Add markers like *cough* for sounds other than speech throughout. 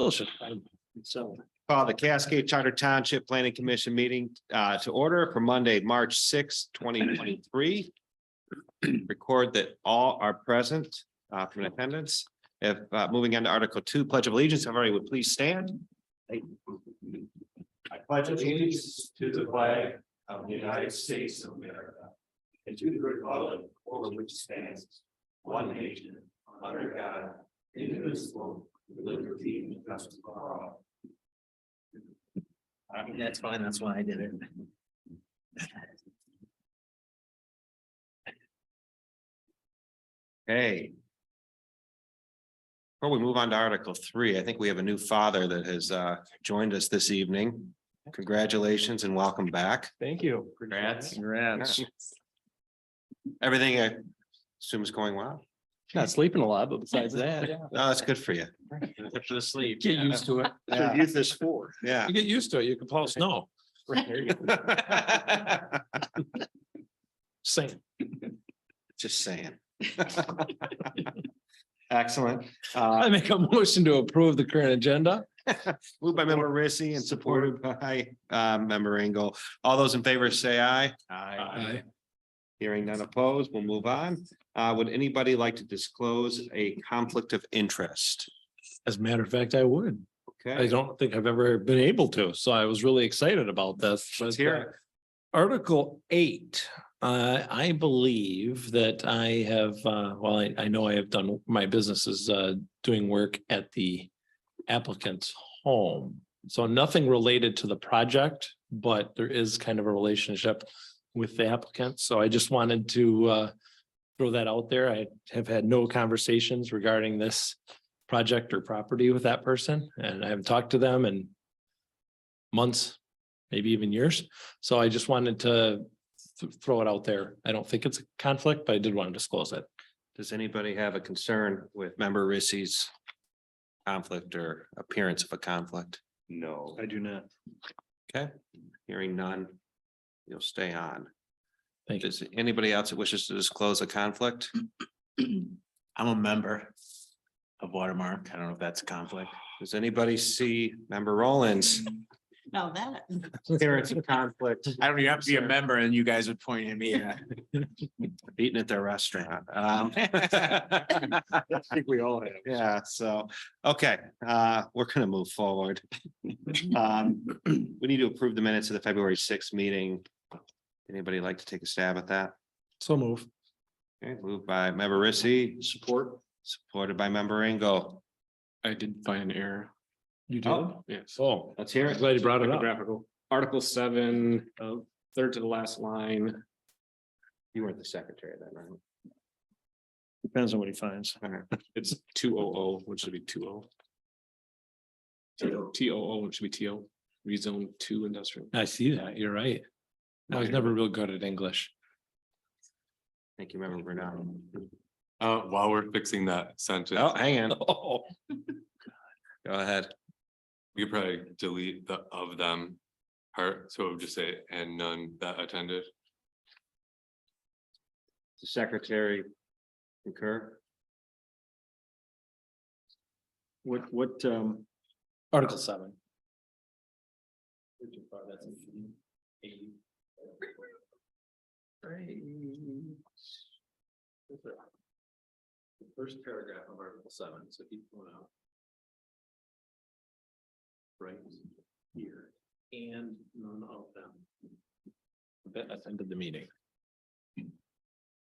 motion. So. Call the Cascade Charter Township Planning Commission meeting uh, to order for Monday, March sixth, twenty twenty-three. Record that all are present uh, from attendance. If, uh, moving on to Article Two, Pledge of Allegiance, everybody would please stand. I pledge allegiance to the flag of the United States of America. And to the republic over which stands one nation under God, indivisible, with liberty and justice for all. That's fine, that's why I did it. Hey. Before we move on to Article Three, I think we have a new father that has uh, joined us this evening. Congratulations and welcome back. Thank you. Congrats. Congrats. Everything I assume is going well. Not sleeping a lot, *laughs* but besides that. No, that's good for you. Good for the sleep. Get used to it. Yeah. youth is for. *laughs* Yeah. get used to it. You can pause no, same. Just saying. Excellent. Uh, I make a motion to approve the current agenda. moved by member Rissy and supported by uh member Engel. All those in favor say aye. Aye. Hearing none opposed, we'll move on. Uh, would anybody like to disclose a conflict of interest? As a matter of fact, I would. I Okay, don't think I've ever been able to, so I was really excited about this. let's but, hear uh, it. Article eight, uh, I believe that I have, uh, well, I, I know I have done, my business is, uh, doing work at the applicant's home. So nothing related to the project, but there is kind of a relationship with the applicant. So I just wanted to, uh, throw that out there. I have had no conversations regarding this project or property with that person, and I haven't talked to them in months, maybe even years. So I just wanted to th- throw it out there. I don't think it's a conflict, but I did want to disclose it. Does anybody have a concern with member Rissy's conflict or appearance of a conflict? No. I do not. Okay, hearing none. You'll stay on. Thank you. Does anybody else that wishes to disclose a conflict? I'm a member of Watermark. I don't know if that's a conflict. Does anybody see member Rollins? Now that. Appearance of conflict, I don't even have to be a member and you guys would point at me. eating at their restaurant. *laughs* Um, I think we all have. Yeah, so, okay, uh, we're gonna move *laughs* forward. Um, we need to approve the minutes of the February sixth meeting. Anybody like to take a stab at that? So move. Okay, moved by member Rissy. Support. Supported by member Engel. I did find an error. You Oh. Yes. Oh, Let's hear I'm it. glad you brought it up. Graphical. Article seven, uh, third to the last line. You weren't the secretary then, right? Depends on what he finds. It's two O O, which should be two O. T O O, which should be T O, rezone two industrial. I see that. You're right. I was never real good at English. *laughs* Thank you, member Bernard. Uh, while we're fixing that Oh, sentence, hang on, Oh, go ahead. we could probably delete the of them part, so it would just say and none that attended. The secretary concur. What, what, um, Article seven. First paragraph of article seven, so keep going out. Right here, and none of them. That attended the meeting.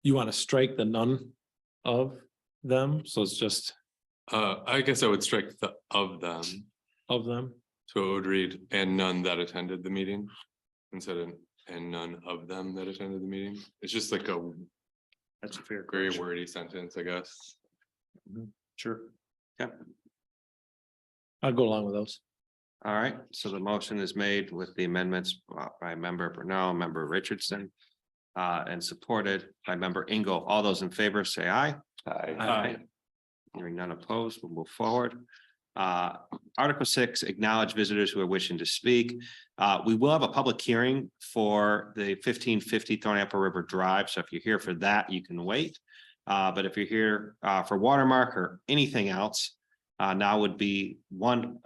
You want to strike the none of them? So it's just Uh, I guess I would strike the of them, of them? so it would read and none that attended the meeting. Instead of and none of them that attended the meeting. It's just like a that's a fair. very wordy sentence, I guess. Sure. Yeah. I'll go along with those. All right, so the motion is made with the amendments brought by member Brunel, member Richardson. Uh, and supported by member Ingo. All those in favor say aye. Aye. Hearing none opposed, we'll move forward. Uh, Article six, acknowledge visitors who are wishing to speak. Uh, we will have a public hearing for the fifteen fifty Thorn Apple River Drive, so if you're here for that, you can wait. Uh, but if you're here, uh, for Watermark or anything else, uh, now would be one